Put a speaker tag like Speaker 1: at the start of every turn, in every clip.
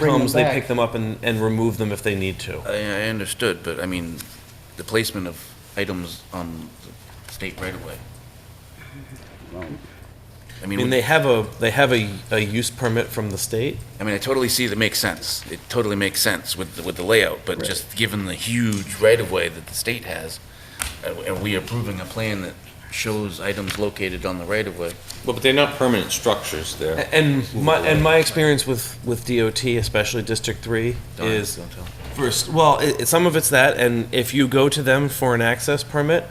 Speaker 1: Bring them
Speaker 2: comes, they
Speaker 1: back.
Speaker 2: pick them up and, and remove them if they need to.
Speaker 3: I, I understood, but I mean, the placement of items on the state right away. I
Speaker 2: I
Speaker 3: mean,
Speaker 2: mean, they have a, they have a, a use permit from the state.
Speaker 3: I mean, I totally see that makes sense. It totally makes sense with, the- with the layout, but just given the huge right of way that the state has, uh, and we approving a plan that shows items located on the right of way.
Speaker 4: Well, but they're not permanent structures, they're,
Speaker 2: And my, and my experience with, with DOT, especially District Three,
Speaker 3: Darn,
Speaker 2: is
Speaker 3: don't tell.
Speaker 2: first, well, it, it- some of it's that, and if you go to them for an access permit,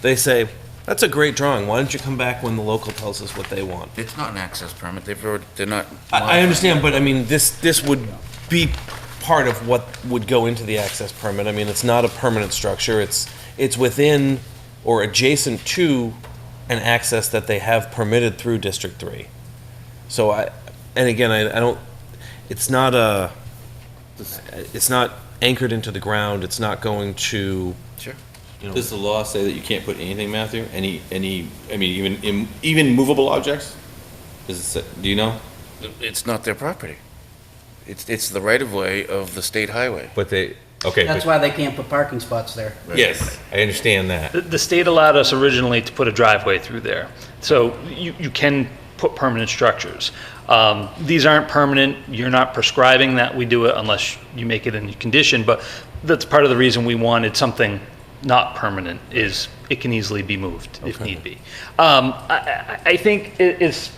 Speaker 2: they say, that's a great drawing, why don't you come back when the local tells us what they want?
Speaker 3: It's not an access permit. They've already, they're not.
Speaker 2: I, I understand, but I mean, this, this would be part of what would go into the access permit. I mean, it's not a permanent structure, it's, it's within or adjacent to an access that they have permitted through District Three. So I, and again, I, I don't, it's not a, it's not anchored into the ground, it's not going to.
Speaker 3: Sure.
Speaker 2: You know,
Speaker 4: does the law say that you can't put anything, Matthew? Any, any, I mean, even, im- even movable objects? Does it, say- do you know?
Speaker 3: It's not their property. It's, it's the right of way of the state highway.
Speaker 4: But they, okay,
Speaker 5: That's why they can't put parking spots there.
Speaker 4: yes, I understand that.
Speaker 6: The- The state allowed us originally to put a driveway through there, so you, you can put permanent structures. Um, These aren't permanent, you're not prescribing that we do it unless you make it in condition, but that's part of the reason we wanted something not permanent, is it can easily be moved if need be. Um, I, I I think it- it's,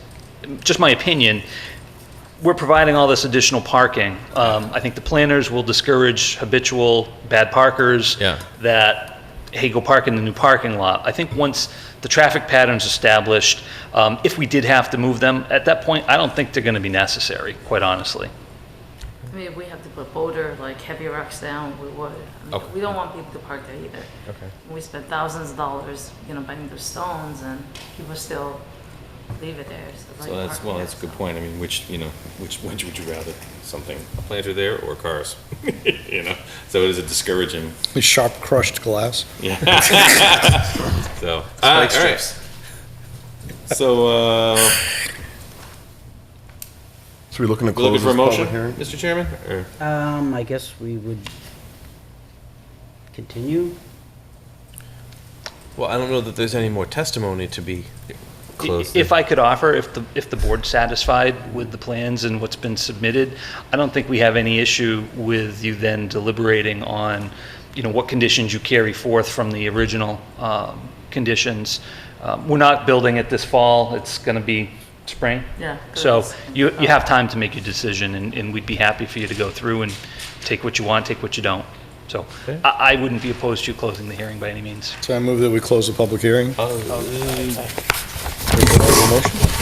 Speaker 6: just my opinion, we're providing all this additional parking. Um, I think the planners will discourage habitual bad parkers.
Speaker 4: Yeah.
Speaker 6: That, hey, go park in the new parking lot. I think once the traffic pattern's established, um, if we did have to move them, at that point, I don't think they're gonna be necessary, quite honestly.
Speaker 7: I mean, if we have to put boulder, like heavy rocks down, we would. I mean,
Speaker 4: Okay.
Speaker 7: We don't want people to park there either. Okay. We spent thousands of dollars, you know, buying those stones and people still leave it there. it's like
Speaker 4: So that's,
Speaker 7: parking
Speaker 4: well,
Speaker 7: there,
Speaker 4: that's a good
Speaker 7: so.
Speaker 4: point, I mean, which, you know, which, which would you rather, something, a planter there or cars? You know, so it is a discouraging,
Speaker 8: With sharp crushed glass.
Speaker 4: so. Spike strips. So, uh,
Speaker 8: So we're looking to
Speaker 4: we looking
Speaker 8: close
Speaker 4: for a
Speaker 8: this
Speaker 4: motion,
Speaker 8: public hearing?
Speaker 4: Mr. Chairman, or?
Speaker 5: Um, I guess we would continue.
Speaker 2: Well, I don't know that there's any more testimony to be.
Speaker 4: Close
Speaker 6: If I could offer, if the, if the board's satisfied with the plans and what's been submitted, I don't think we have any issue with you then deliberating on, you know, what conditions you carry forth from the original um, conditions. Um, We're not building it this fall, it's going to be spring.
Speaker 7: Yeah,
Speaker 6: So
Speaker 7: correct.
Speaker 6: you, you have time to make your decision, and, and we'd be happy for you to go through and take what you want, take what you don't. So I, I wouldn't be opposed to you closing the hearing by any means.
Speaker 8: So I move that we close the public hearing.
Speaker 4: Oh,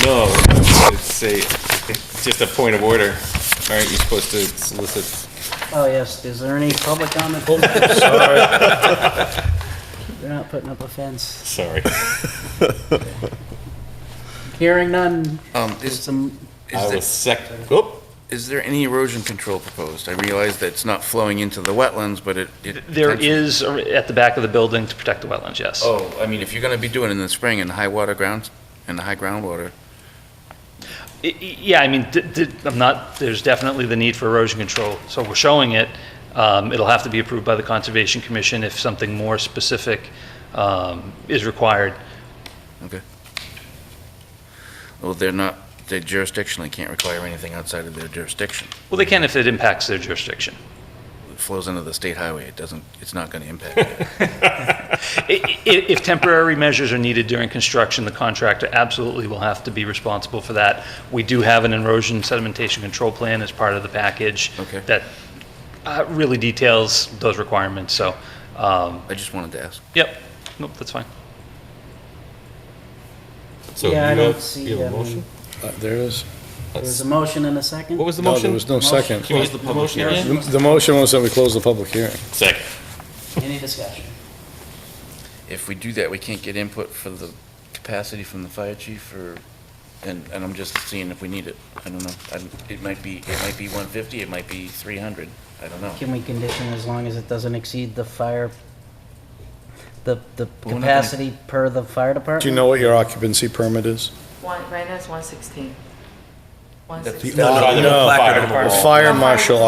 Speaker 4: No, it's say, it's just a point of order. All right, you're supposed to solicit.
Speaker 5: Oh, yes, is there any public comment? They're not putting up a fence.
Speaker 4: Sorry.
Speaker 5: Hearing none,
Speaker 3: Um,
Speaker 5: there's
Speaker 3: is,
Speaker 5: some,
Speaker 4: I
Speaker 3: is
Speaker 4: was
Speaker 3: there,
Speaker 4: sec, oh, oop,
Speaker 3: is there any erosion control proposed? I realize that it's not flowing into the wetlands, but it. it
Speaker 6: There
Speaker 3: potentially-
Speaker 6: is, a- at the back of the building, to protect the wetlands, yes.
Speaker 3: Oh, I mean, if you're gonna be doing it in the spring in the high water grounds, in the high groundwater,
Speaker 6: I- I- Yeah, I mean, d- d- I'm not, there's definitely the need for erosion control, so we're showing it. Um, It'll have to be approved by the Conservation Commission if something more specific um, is required.
Speaker 3: okay? Well, they're not, they jurisdictionally can't require anything outside of their jurisdiction.
Speaker 6: Well, they can if it impacts their jurisdiction.
Speaker 3: It flows into the state highway, it doesn't, it's not gonna impact it.
Speaker 6: I- i- If temporary measures are needed during construction, the contractor absolutely will have to be responsible for that. We do have an erosion sedimentation control plan as part of the package
Speaker 3: Okay.
Speaker 6: that uh, really details those requirements, so, um,
Speaker 3: I just wanted to ask.
Speaker 6: yep, nope, that's fine.
Speaker 4: so you
Speaker 5: yeah, I don't
Speaker 4: have, you
Speaker 5: see,
Speaker 4: have
Speaker 5: um,
Speaker 4: a motion?
Speaker 8: Uh, There is.
Speaker 5: there's
Speaker 4: Let's-
Speaker 5: a motion and a second?
Speaker 4: What was the
Speaker 8: No, there
Speaker 4: motion?
Speaker 8: was no second.
Speaker 4: Can we get the motion again?
Speaker 8: The the motion was that we close the public hearing.
Speaker 4: Second.
Speaker 5: Any discussion?
Speaker 3: If we do that, we can't get input for the capacity from the fire chief or, and, and I'm just seeing if we need it. I don't know. I don't- It might be, it might be 150, it might be 300. I don't know.
Speaker 5: Can we condition as long as it doesn't exceed the fire, the, the
Speaker 3: gonna-
Speaker 5: capacity per the fire department?
Speaker 8: Do you know what your occupancy permit is?
Speaker 7: One, right now it's one sixteen.
Speaker 9: One
Speaker 10: That's
Speaker 9: sixty.
Speaker 10: the-
Speaker 4: No, no,
Speaker 8: No,
Speaker 4: no,
Speaker 8: no,
Speaker 4: placard on the
Speaker 8: The
Speaker 4: wall.
Speaker 8: fire marshal